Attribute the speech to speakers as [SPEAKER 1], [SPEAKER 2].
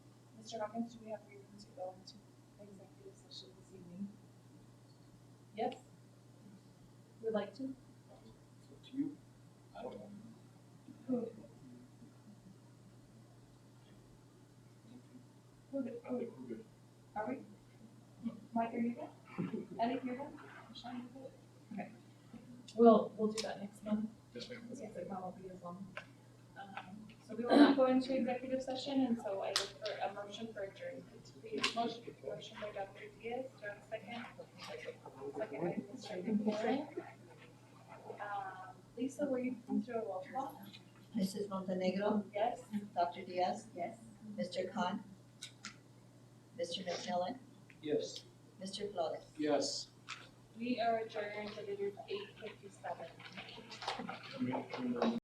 [SPEAKER 1] Mr. Hawkins, do we have reasons to go into executive session this evening? Yes? Would like to?
[SPEAKER 2] It's up to you. I don't know.
[SPEAKER 1] Who, who,
[SPEAKER 2] I
[SPEAKER 1] who,
[SPEAKER 2] think we're good.
[SPEAKER 1] are we? Mike, are you there? Eddie, you're there? Sean, you there? Okay. We'll, we'll do that next month.
[SPEAKER 2] Yes, ma'am.
[SPEAKER 1] Yes, it won't be as long. Um, So we will not go into executive session, and so I look for a motion for adjournment. Motion, motion by Dr. Diaz, do I have a second? Second by Mr. DeBoer. Um, Lisa, were you through a roll call?
[SPEAKER 3] Mrs. Montenegro,
[SPEAKER 1] Yes?
[SPEAKER 3] Dr. Diaz,
[SPEAKER 1] Yes.
[SPEAKER 3] Mr. Khan, Mr. McMillan,
[SPEAKER 2] Yes.
[SPEAKER 3] Mr. Flores.
[SPEAKER 2] Yes.
[SPEAKER 1] We are adjourned at eight fifty-seven.
[SPEAKER 2] Can we- can we-